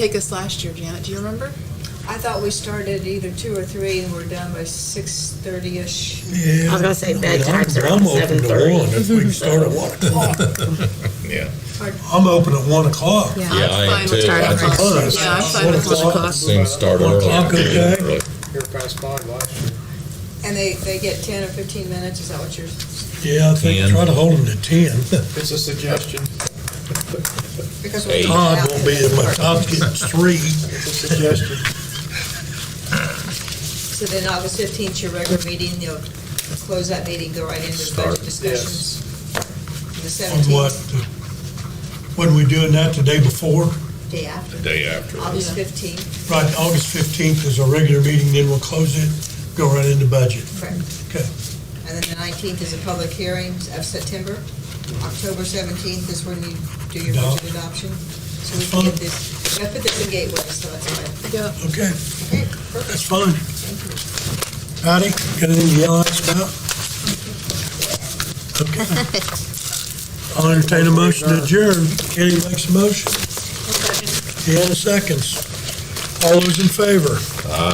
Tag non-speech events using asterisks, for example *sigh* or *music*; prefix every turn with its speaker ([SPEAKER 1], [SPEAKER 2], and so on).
[SPEAKER 1] take us last year, Janet? Do you remember?
[SPEAKER 2] I thought we started either two or three and we're done by six thirty-ish.
[SPEAKER 3] Yeah.
[SPEAKER 4] I was gonna say
[SPEAKER 3] mean,
[SPEAKER 4] bedtime's
[SPEAKER 3] I'm-
[SPEAKER 4] around
[SPEAKER 3] I'm open to
[SPEAKER 4] 7:30.
[SPEAKER 3] one If we can start at
[SPEAKER 4] *laughs*
[SPEAKER 3] one o'clock.
[SPEAKER 5] Yeah.
[SPEAKER 3] I'm open at one o'clock.
[SPEAKER 4] Yeah.
[SPEAKER 5] Yeah, I am
[SPEAKER 1] I'm fine
[SPEAKER 5] too.
[SPEAKER 1] with
[SPEAKER 5] I
[SPEAKER 1] one
[SPEAKER 5] think
[SPEAKER 1] o'clock.
[SPEAKER 3] so.
[SPEAKER 1] Yeah, I'm fine with
[SPEAKER 3] One
[SPEAKER 1] one o'clock.
[SPEAKER 3] o'clock.
[SPEAKER 5] Soon start
[SPEAKER 3] One
[SPEAKER 5] early.
[SPEAKER 3] o'clock, okay.
[SPEAKER 5] Early.
[SPEAKER 6] Here past five last year.
[SPEAKER 2] And they, they get ten or fifteen minutes, is that what you're?
[SPEAKER 3] Yeah, I
[SPEAKER 5] Ten.
[SPEAKER 3] think, try to hold them to ten.
[SPEAKER 6] It's a suggestion,
[SPEAKER 2] because we're
[SPEAKER 5] Eight.
[SPEAKER 2] talking
[SPEAKER 3] *laughs* Todd
[SPEAKER 2] about-
[SPEAKER 3] won't be in my, Todd's getting three.
[SPEAKER 6] it's a suggestion.
[SPEAKER 2] So then August fifteenth, your regular meeting, you'll close that meeting, go right into the budget
[SPEAKER 5] Start.
[SPEAKER 2] discussions. The
[SPEAKER 3] On what,
[SPEAKER 2] seventeenth,
[SPEAKER 3] when we doing that the day before?
[SPEAKER 2] day after,
[SPEAKER 5] Day after.
[SPEAKER 2] August
[SPEAKER 1] Yeah.
[SPEAKER 2] fifteenth,
[SPEAKER 3] Right, August fifteenth is our regular meeting, then we'll close it, go right into budget.
[SPEAKER 2] correct.
[SPEAKER 3] Okay.
[SPEAKER 2] And then the nineteenth is a public hearing of September. October seventeenth is when you do your
[SPEAKER 3] No.
[SPEAKER 2] budget adoption. So we can get this, I put this in Gateway, so that's fine.
[SPEAKER 1] Yeah.
[SPEAKER 2] Okay,
[SPEAKER 3] Okay,
[SPEAKER 2] perfect.
[SPEAKER 3] that's fine. Patty, got anything to yell at us about? Okay. I'll entertain a motion to adjourn. Kenny makes a motion. Deanna seconds. All those in favor?